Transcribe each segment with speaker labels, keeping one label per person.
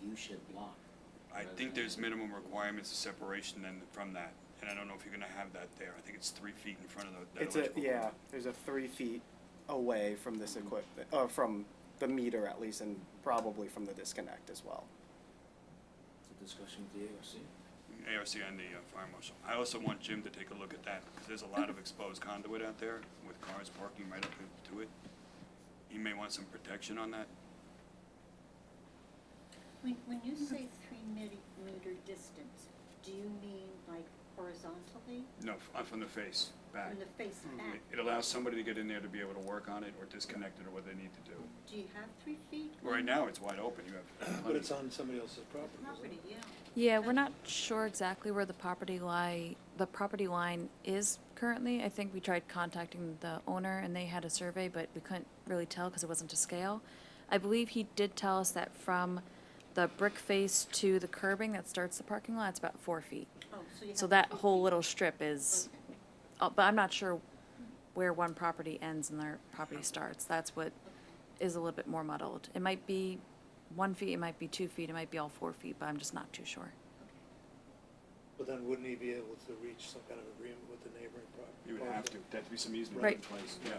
Speaker 1: view shed block.
Speaker 2: I think there's minimum requirements of separation then from that, and I don't know if you're gonna have that there, I think it's three feet in front of the. that
Speaker 3: It's a,
Speaker 2: electrical
Speaker 3: yeah,
Speaker 2: pole.
Speaker 3: there's a three feet away from this equipment, or from the meter at least, and probably from the disconnect as well.
Speaker 1: It's a discussion with the ARC.
Speaker 2: ARC and the uh, fire marshal. I also want Jim to take a look at that, because there's a lot of exposed conduit out there with cars parking right up to it. He may want some protection on that.
Speaker 4: When, when you say three meter, meter distance, do you mean like horizontally
Speaker 2: No, f- uh, mm, from the face, back.
Speaker 4: from the face back?
Speaker 2: It- It allows somebody to get in there to be able to work on it or disconnect it or what they need to do.
Speaker 4: Do you have three feet?
Speaker 2: Right now, it's wide open, you have.
Speaker 5: But
Speaker 2: plenty.
Speaker 5: it's on somebody else's property, isn't
Speaker 4: Property,
Speaker 5: it?
Speaker 4: yeah.
Speaker 6: Yeah, we're not sure exactly where the property line, the property line is currently. I think we tried contacting the owner and they had a survey, but we couldn't really tell because it wasn't to scale. I believe he did tell us that from the brick face to the curbing that starts the parking lot, it's about four feet.
Speaker 4: Oh, so you have.
Speaker 6: So that
Speaker 4: three
Speaker 6: whole
Speaker 4: feet.
Speaker 6: little strip is,
Speaker 4: Okay,
Speaker 6: uh, but I'm not sure where one property ends and their property starts. That's what is a little bit more muddled. It might be one feet, it might be two feet, it might be all four feet, but I'm just not too sure.
Speaker 5: But then wouldn't he be able to reach some kind of agreement with the neighboring property?
Speaker 2: You would have to, that'd be some easement in
Speaker 6: Right.
Speaker 2: place, yeah.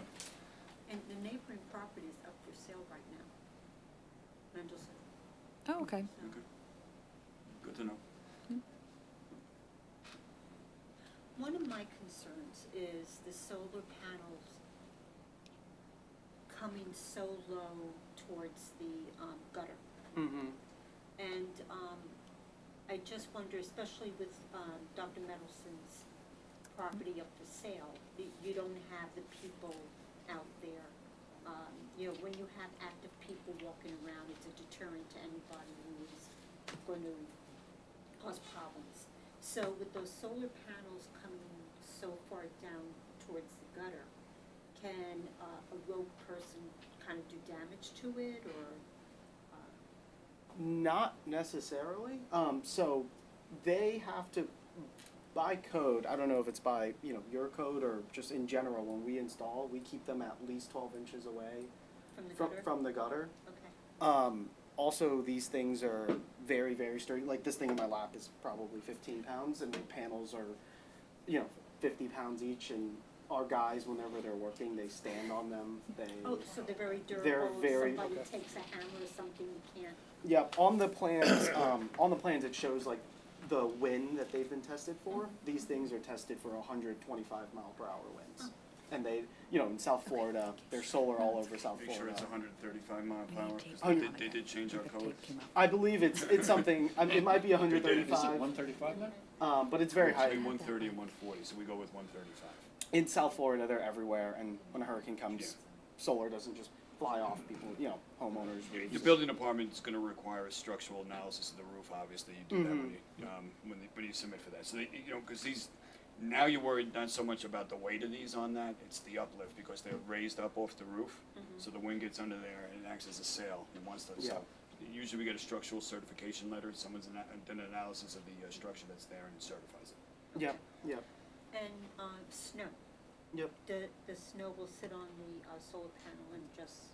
Speaker 4: And the neighboring property is up for sale right now. Mendelson.
Speaker 6: Oh, okay.
Speaker 4: so-
Speaker 2: Okay. Good to know.
Speaker 4: One of my concerns is the solar panels coming so low towards the um, gutter.
Speaker 3: Mm-hmm.
Speaker 4: And um, I just wonder, especially with um, Dr. Mendelson's property up for sale, y- you don't have the people out there. Um, You know, when you have active people walking around, it's a deterrent to anybody who's going to cause problems. So with those solar panels coming so far down towards the gutter, can uh, a rogue person kind of do damage to it or? uh,
Speaker 3: Not necessarily. Um, so they have to, by code, I don't know if it's by, you know, your code or just in general, when we install, we keep them at least twelve inches away
Speaker 4: From the
Speaker 3: from,
Speaker 4: gutter?
Speaker 3: from the gutter.
Speaker 4: Okay.
Speaker 3: Um, also, these things are very, very sturdy. Like this thing in my lap is probably 15 pounds, and the panels are, you know, 50 pounds each. And our guys, whenever they're working, they stand on them. They,
Speaker 4: Oh, so they're very durable.
Speaker 3: They're very-
Speaker 4: Somebody
Speaker 3: okay.
Speaker 4: takes a hammer or something, you can't.
Speaker 3: yep. On the plans, um, on the plans, it shows like the wind that they've been tested for. These things are tested for 125 mile per hour winds, and they, you know, in South Florida, they're solar all over South
Speaker 2: Make
Speaker 3: Florida.
Speaker 2: sure it's hundred and thirty-five mile
Speaker 6: We
Speaker 2: per hour,
Speaker 6: need
Speaker 2: 'cause
Speaker 6: tape
Speaker 2: Oh, they
Speaker 6: on
Speaker 2: did,
Speaker 6: it.
Speaker 2: they did change our
Speaker 6: The
Speaker 2: code.
Speaker 6: tape came out.
Speaker 3: I believe it's it's something. I mean, it might be
Speaker 5: Is it
Speaker 3: 135,
Speaker 5: one thirty-five now?
Speaker 3: um, but it's very high.
Speaker 2: Between one thirty and one forty, so we go with one thirty-five.
Speaker 3: in South Florida, they're everywhere, and when a hurricane comes, solar doesn't just fly off people, you know, homeowners.
Speaker 2: The building department's gonna require a structural analysis of the roof, obviously, you do that when you, um, when they, when you submit for that. So they, you know, cause these, now you're worried not so much about the weight of these on that, it's the uplift, because they're raised up off the roof.
Speaker 3: Mm-hmm.
Speaker 2: So the wind gets under there and it acts as a sail, and once that's
Speaker 3: Yeah.
Speaker 2: up, usually we get a structual certification letter, someone's ana- done an analysis of the uh, structure that's there and certifies it.
Speaker 3: Yep, yep,
Speaker 4: And, uh, snow,
Speaker 3: yep.
Speaker 4: the, the snow will sit on the, uh, solar panel and just,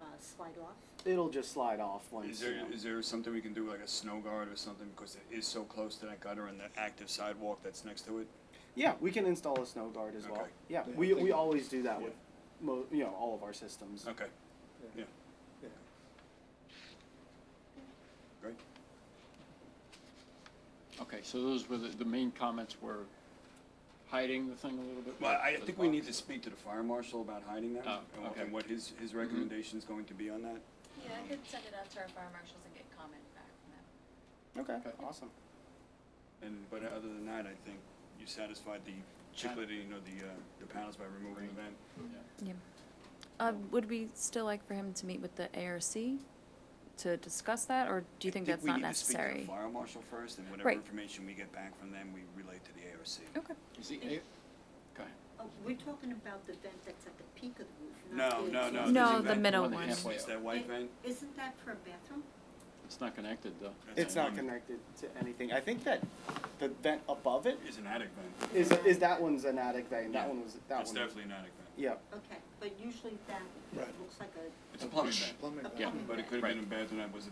Speaker 4: uh, slide off?
Speaker 3: It'll just slide off
Speaker 2: Is
Speaker 3: once.
Speaker 2: there,
Speaker 3: you know.
Speaker 2: is there something we can do, like a snow guard or something, because it is so close to that gutter and that active sidewalk that's next to it?
Speaker 3: Yeah, we can install a snow guard as well.
Speaker 2: Okay.
Speaker 3: Yeah,
Speaker 5: Yeah,
Speaker 3: we,
Speaker 5: I think-
Speaker 3: we always do that with, mo- you know, all of our systems.
Speaker 2: Okay, yeah,
Speaker 5: Yeah.
Speaker 2: great.
Speaker 7: Okay, so those were the, the main comments were hiding the thing a little bit?
Speaker 2: Well, I
Speaker 7: with the
Speaker 2: think we need to
Speaker 7: box.
Speaker 2: speak to the fire marshal about hiding that,
Speaker 7: Oh,
Speaker 2: and wha-
Speaker 7: okay.
Speaker 2: and what his, his recommendation's going to be on that.
Speaker 6: Yeah, I could send it out to our fire marshals and get comment back from them.
Speaker 3: Okay,
Speaker 7: Okay.
Speaker 3: awesome.
Speaker 2: And, but other than that, I think you satisfied the chicolating or the, uh, the panels by removing the vent.
Speaker 7: Yeah.
Speaker 6: Yeah. Uh, would we still like for him to meet with the ARC to discuss that, or do you think that's not
Speaker 2: we need to speak to
Speaker 6: necessary?
Speaker 2: the fire marshal first, and whatever
Speaker 6: Right.
Speaker 2: information we get back from them, we relate to the ARC.
Speaker 6: Okay.
Speaker 7: Is he,
Speaker 4: Think-
Speaker 7: a- go ahead.
Speaker 4: Oh, we're talking about the vent that's at the peak of the roof,
Speaker 2: No,
Speaker 4: not the.
Speaker 2: no, no. there's a
Speaker 4: exhaust.
Speaker 6: No, the
Speaker 2: vent-
Speaker 6: middle
Speaker 7: one that
Speaker 6: one.
Speaker 7: halfway
Speaker 2: It's
Speaker 7: up.
Speaker 2: that white
Speaker 4: It-
Speaker 2: vent?
Speaker 4: Isn't that for a bathroom?
Speaker 7: It's not connected though.
Speaker 2: That's
Speaker 3: It's
Speaker 2: a
Speaker 3: not
Speaker 2: one-
Speaker 3: connected to anything. I think that the vent above it
Speaker 2: It's an attic vent.
Speaker 3: is, is that one's an attic vein.
Speaker 2: Yeah.
Speaker 3: That one was, that
Speaker 2: It's
Speaker 3: one.
Speaker 2: definitely an attic vent.
Speaker 3: Yep.
Speaker 4: Okay, but usually that
Speaker 5: Right.
Speaker 4: looks like a,
Speaker 2: It's a plumbing vent,
Speaker 5: Plumbing.
Speaker 4: a
Speaker 5: back.
Speaker 4: plumbing
Speaker 2: but it
Speaker 4: vent.
Speaker 2: could have been
Speaker 7: Right.
Speaker 2: a bathroom that was